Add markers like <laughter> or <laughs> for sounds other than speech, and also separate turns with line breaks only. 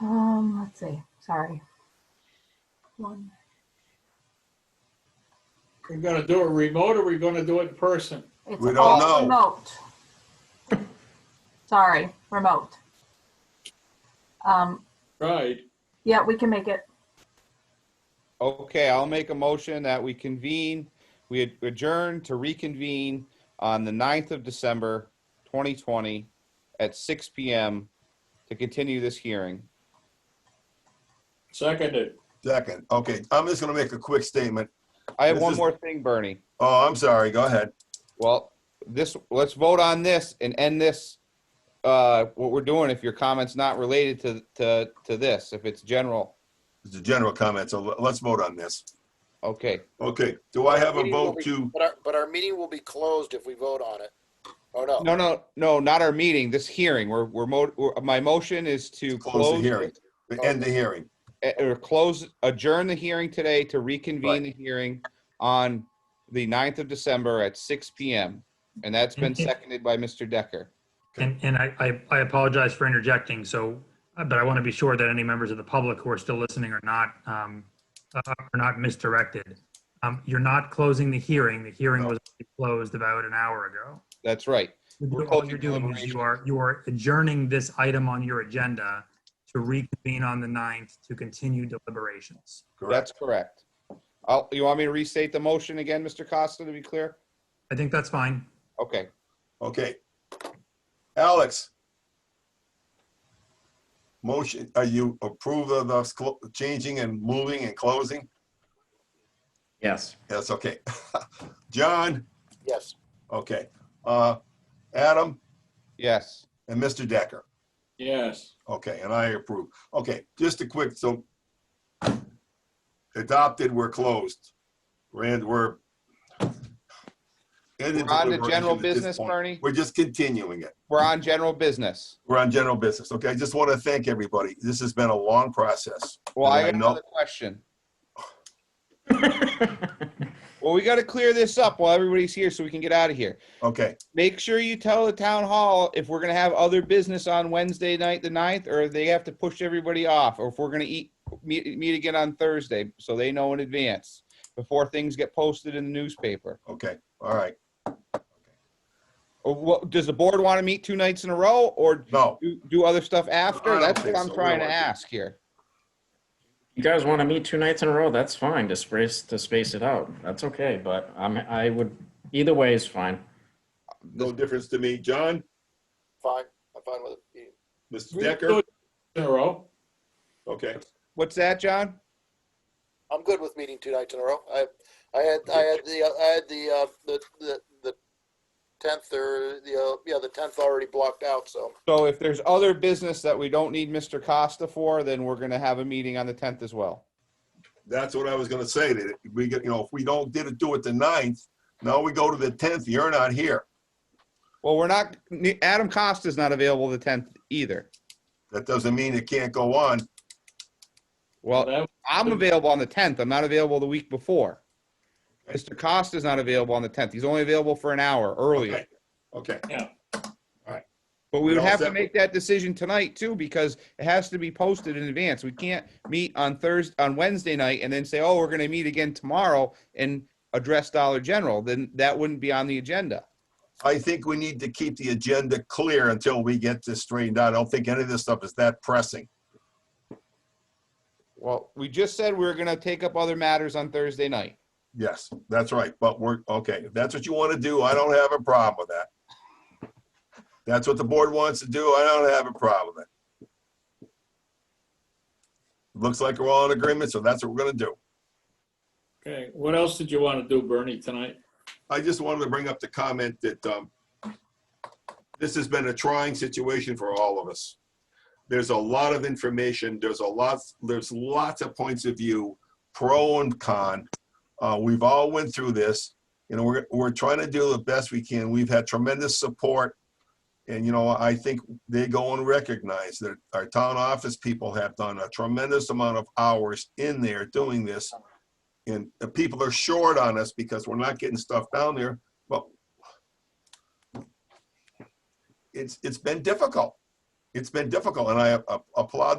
Um, see, sorry. One.
We're gonna do it remote or we're gonna do it in person?
It's
We don't
all
know.
Remote. Sorry, remote. Um,
Right.
yeah, we can make it.
Okay, I'll make a motion that we convene, we ad- adjourn to reconvene on the 9th of December, 2020 at 6 PM to continue this hearing.
Seconded.
Second, okay, I'm just gonna make a quick statement.
I have
This
one
is-
more thing, Bernie.
Oh, I'm sorry, go ahead.
Well, this, let's vote on this and end this, uh, what we're doing if your comment's not related to, to, to this, if it's general.
It's a general comment, so let's vote on this.
Okay,
Okay, do I have a vote to,
But our, but our meeting will be closed if we vote on it. Oh, no.
no, no, no, not our meeting, this hearing. We're, we're, mo- we're- my motion is to
Close the
close
hearing. end the hearing?
eh, or close, adjourn the hearing today to reconvene the hearing on the 9th of December at six PM. And that's been
Mhm.
seconded by Mr. Decker.
And, and I, I- I apologize for interjecting, so, uh, but I want to be sure that any members of the public who are still listening are not, um, uh, are not misdirected. Um, You're not closing the hearing. The hearing
No.
was closed about an hour ago.
That's right. We're
All
closing
you're doing is
deliberations.
you are, you are adjourning this item on your agenda to reconvene on the 9th to continue deliberations.
Correct.
That's correct. I'll, you want me to restate the motion again, Mr. Costa, to be clear?
I think that's fine.
Okay.
Okay. Alex? Motion, are you approve of us clo- changing and moving and closing?
Yes.
Yes, okay. <laughs> John,
Yes.
okay. Uh, Adam
Yes.
and Mr. Decker,
Yes.
okay, and I approve. Okay, just a quick, so adopted, we're closed. Rand, we're.
We're on to general
At this
business,
point.
Bernie.
We're just continuing it.
We're on general business.
We're on general business. Okay, I just want to thank everybody. This has been a long process.
Well, I
And I know-
got another question. Well, we got to clear this up while everybody's here so we can get out of here.
Okay,
make sure you tell the town hall if we're gonna have other business on Wednesday night, the ninth, or if they have to push everybody off, or if we're gonna eat, meet, meet again on Thursday, so they know in advance before things get posted in the newspaper.
okay, all right.
Or what, does the board want to meet two nights in a row or
No,
do, do other stuff
I
after?
don't
That's what
think
I'm
so. We
trying to
don't want to.
ask here.
You guys want to meet two nights in a row? That's fine to space, to space it out. That's okay, but I'm, I would, either way is fine.
no difference to me. John,
Fine. I'm fine with it.
Mr.
We can do
Decker,
it In a row.
okay.
What's that, John?
I'm good with meeting two nights in a row. I, I had, I had the, I had the, uh, the, the, the tenth or the, uh, yeah, the tenth already blocked out, so.
So if there's other business that we don't need Mr. Costa for, then we're gonna have a meeting on the tenth as well.
That's what I was gonna say, that if we get, you know, if we don't did it, do it the ninth, now we go to the tenth, you're not here.
Well, we're not, Adam Costa's not available the tenth either.
That doesn't mean it can't go on.
Well,
That-
I'm available on the tenth. I'm not available the week before.
Okay.
Mr. Costa's not available on the tenth. He's only available for an hour earlier.
Okay. Okay,
But we would
All
have to
set.
make that decision tonight too, because it has to be posted in advance. We can't meet on Thursday, on Wednesday night and then say, oh, we're gonna meet again tomorrow and address Dollar General. Then that wouldn't be on the agenda.
I think we need to keep the agenda clear until we get this straightened out. I don't think any of this stuff is that pressing.
Well, we just said we were gonna take up other matters on Thursday night.
Yes, that's right, but we're, okay, if that's what you want to do, I don't have a problem with that. That's what the board wants to do, I don't have a problem with it. Looks like we're all in agreement, so that's what we're gonna do.
Okay. What else did you want to do, Bernie, tonight?
I just wanted to bring up the comment that um, this has been a trying situation for all of us. There's a lot of information, there's a lot, there's lots of points of view, pro and con. Uh, We've all went through this, you know, we're, we're trying to do the best we can. We've had tremendous support. And, you know, I think they go and recognize that our town office people have done a tremendous amount of hours in there doing this and the people are short on us because we're not getting stuff down there, but it's, it's been difficult. It's been difficult, and I applaud the